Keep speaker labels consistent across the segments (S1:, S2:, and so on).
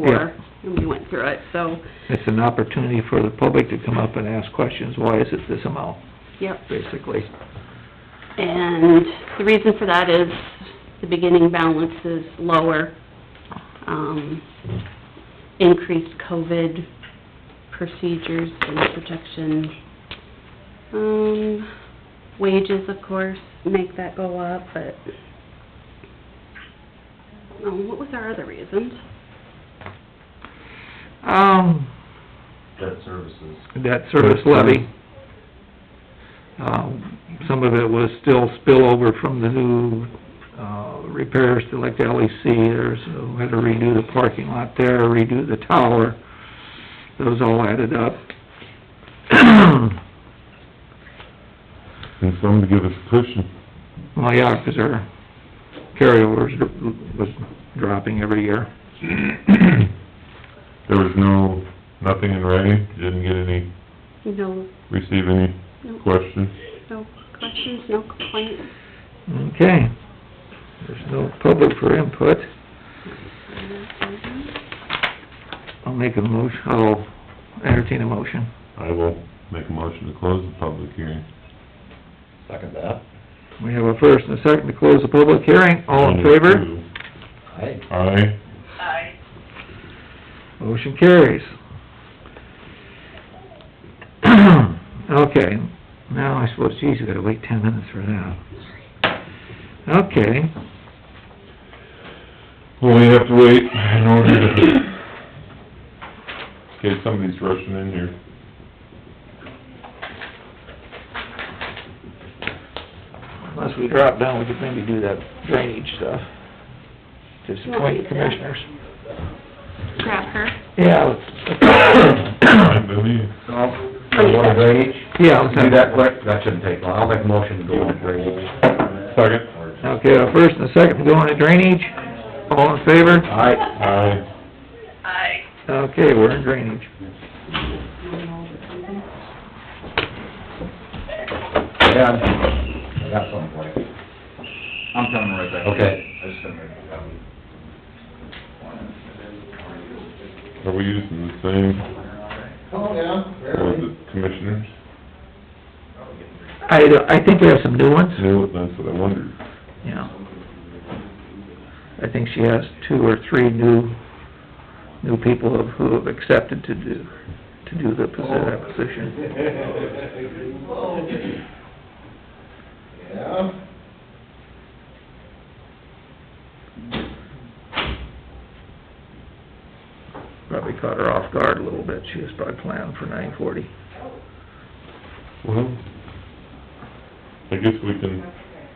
S1: before, and we went through it, so,
S2: It's an opportunity for the public to come up and ask questions, why is it this amount,
S1: yep.
S2: basically?
S1: And the reason for that is the beginning balance is lower. Um, increased COVID procedures and protection. Um, wages, of course, make that go up, but, um, what was our other reasons?
S2: Um,
S3: debt services.
S2: that service levy. Um, some of it was still spillover from the new, uh, repairs to like the LEC, there's, uh, we had to redo the parking lot there, redo the tower. Those all added up.
S4: And some to give us a cushion.
S2: Well, yeah, 'cause our carryovers dr- was dropping every year.
S4: There was no, nothing in writing, didn't get any,
S1: No,
S4: receive any
S1: no,
S4: questions.
S1: no questions, no complaints?
S2: Okay. There's no public for input. I'll make a motion, I'll entertain a motion.
S4: I will make a motion to close the public hearing.
S3: Second that.
S2: We have a first and a second to close the public hearing. All in favor?
S3: Aye.
S4: Aye.
S2: Motion carries. Okay, now I suppose, geez, we gotta wait ten minutes for that. Okay,
S4: Well, we have to wait in order to, in case somebody's rushing in here.
S2: unless we drop down, we could maybe do that drainage stuff. Disappoint the commissioners.
S1: Grab her.
S2: Yeah,
S4: Fine
S2: let's...
S4: by me.
S3: No, you want drainage?
S2: Yeah, let's
S3: Do
S2: have
S3: that quick, that shouldn't take long, I'll make a motion to go on drainage.
S4: Second.
S2: Okay, a first and a second to go into drainage. All in favor?
S3: Aye.
S4: Aye.
S2: Okay, we're in drainage.
S3: Yeah, I got something for you.
S5: I'm coming right back.
S3: Okay.
S5: I just gotta make a copy.
S4: Are we using the same,
S5: Calm down.
S4: was it commissioners?
S2: I, don't- I think we have some new ones.
S4: No, that's what I wondered.
S2: Yeah. I think she has two or three new, new people of- who have accepted to do, to do the posi- that position.
S5: Yeah?
S2: Probably caught her off guard a little bit. She was probably planning for nine forty.
S4: Well, Mm-hmm. I guess we can,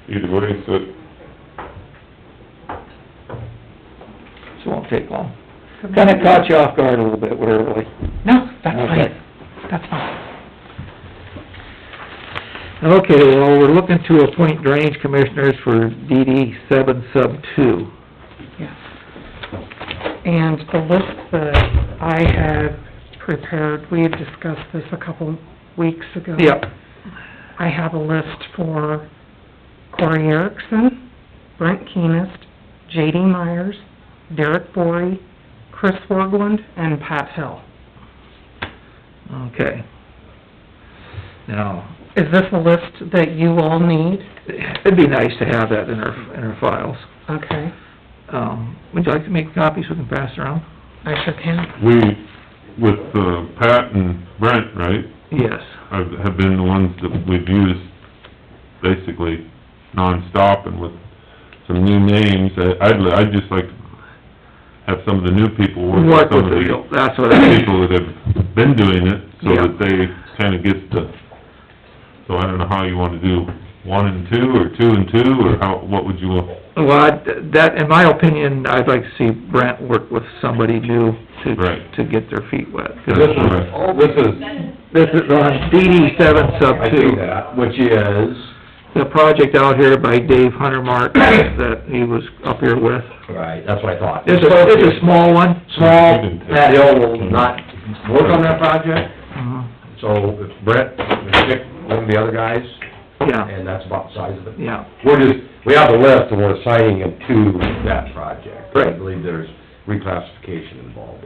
S4: either way, so it
S2: So it won't take long. Kinda caught you off guard a little bit, we're early. No, that's fine, that's fine. Okay, well, we're looking to appoint drainage commissioners for DD seven sub two.
S6: Yes. And the list that I had prepared, we had discussed this a couple weeks ago.
S2: Yep,
S6: I have a list for Corey Erickson, Brent Keenest, J.D. Myers, Derek Bory, Chris Worgland, and Pat Hill.
S2: okay. Now,
S6: Is this a list that you all need?
S2: it'd be nice to have that in our, in our files.
S6: Okay,
S2: Um, would you like to make copies we can pass around?
S6: I sure can.
S4: We, with uh, Pat and Brent, right,
S2: Yes.
S4: have have been the ones that we've used basically nonstop and with some new names. I- I'd, li- I'd just like to have some of the new people work with
S2: Work
S4: some of
S2: with
S4: the
S2: the, real- that's what I mean.
S4: people that have been doing it, so
S2: Yeah.
S4: that they kinda get the, so I don't know how you wanna do, one and two, or two and two, or how, what would you want?
S2: Well, I'd- that, in my opinion, I'd like to see Brent work with somebody new to,
S4: Right.
S2: to get their feet wet. 'Cause
S3: This is, all this is,
S2: This is on DD seven sub
S3: I see
S2: two,
S3: that, which is,
S2: the project out here by Dave Huntermark that he was up here with.
S3: right, that's what I thought.
S2: It's a, it's a small one.
S3: Small, Pat Hill will not work on that project,
S2: Mhm.
S3: so if Brett, Dick, one of the other guys,
S2: Yeah,
S3: and that's about the size of it.
S2: yeah,
S3: We're just, we have the list, and we're assigning them to that project. I
S2: Right.
S3: believe there's reclassification involved